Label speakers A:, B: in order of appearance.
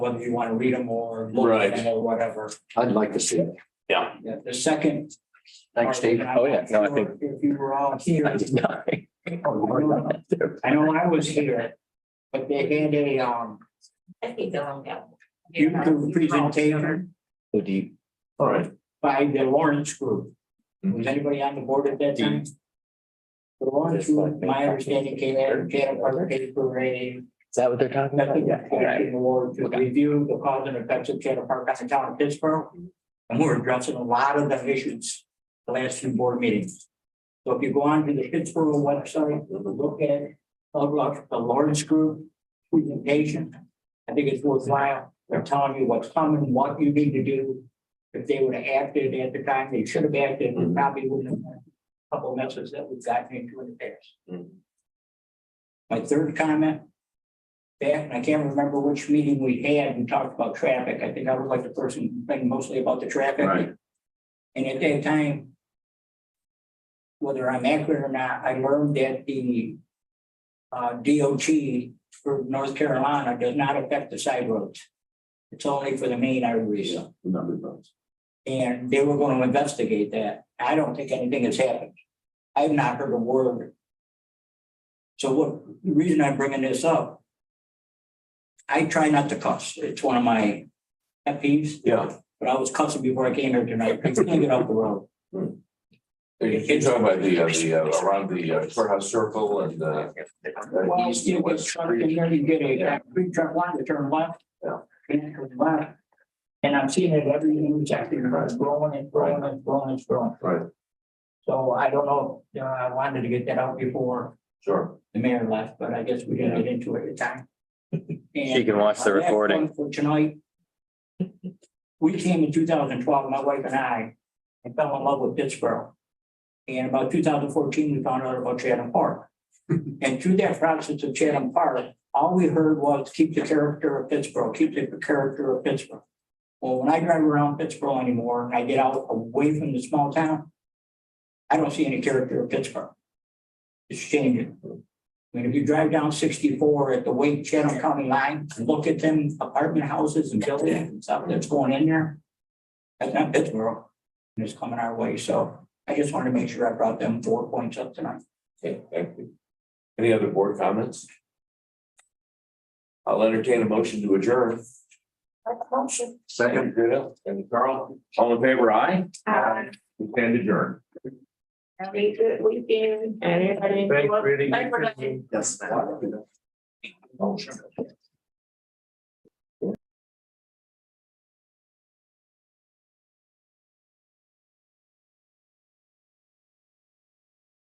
A: whether you want to read them or look
B: Right.
A: at them or whatever.
C: I'd like to see it.
A: Yeah, The second.
C: Thanks, Steve.
A: part, and I'm
C: Oh, yeah. No, I
A: not sure If you were all here. I know I was here, but they had a, um,
D: I think they'll all go.
A: YouTube presentation
C: Oh, do you-
B: All right.
A: by the Lawrence Group. Was anybody on the board at that time? The Lawrence Group, my understanding came out, Janet participated for a
C: Is that what they're talking about?
A: nothing
C: Yeah. all right.
A: award to
C: Okay.
A: review the cause and effects of Chatham Park on the town of Pittsburgh. And we're addressing a lot of the issues the last few board meetings. So if you go on to the Pittsburgh website, look at uh, look, the Lawrence Group presentation. I think it's worthwhile. They're telling you what's coming, what you need to do. If they would have acted at the time, they should have acted, we probably wouldn't have had a couple messes that we've gotten into in the past.
B: Mm-hmm.
A: My third comment. Back, and I can't remember which meeting we had, we talked about traffic. I think I was like the person complaining mostly about the traffic.
B: Right.
A: And at that time. Whether I'm accurate or not, I learned that the. Uh, DOT for North Carolina does not affect the side roads. It's only for the main arteries.
B: Number of votes.
A: And they were gonna investigate that. I don't think anything has happened. I've not heard a word. So what, the reason I'm bringing this up. I try not to cuss. It's one of my pet peeves,
B: Yeah.
A: but I was cussing before I came here tonight. I can't get off the road.
B: You're talking about the, uh, the, uh, around the uh, courthouse circle and, uh,
A: Well,
B: uh,
A: you
B: east and
A: still get
B: west
A: truck in
B: street.
A: there, you get a
B: Yeah.
A: concrete truck line to turn left.
B: Yeah.
A: Connect with left. And I'm seeing it every intersection, it's growing and growing and growing and growing.
B: Right.
A: So I don't know, you know, I wanted to get that out before
B: Sure.
A: the mayor left, but I guess we didn't get into it at the time.
E: She can watch the
A: And, uh, last one
E: recording.
A: For tonight. We came in two thousand twelve, my wife and I, and fell in love with Pittsburgh. And about two thousand fourteen, we found out about Chatham Park. And through that process of Chatham Park, all we heard was keep the character of Pittsburgh, keep the character of Pittsburgh. Well, when I drive around Pittsburgh anymore and I get out away from the small town, I don't see any character of Pittsburgh. It's changing. I mean, if you drive down sixty-four at the Wake Channel County line, and look at them apartment houses and buildings and stuff that's going in there. That's not Pittsburgh, and it's coming our way, so I just wanted to make sure I brought them four points up tonight.
B: Okay, thank you. Any other board comments? I'll entertain a motion to adjourn. Second. Rita And Carl, all in favor, aye?
D: Uh,
B: We stand adjourned.
D: have a good weekend, and everybody. enjoy- Thank you.
B: Yes.
A: Motion.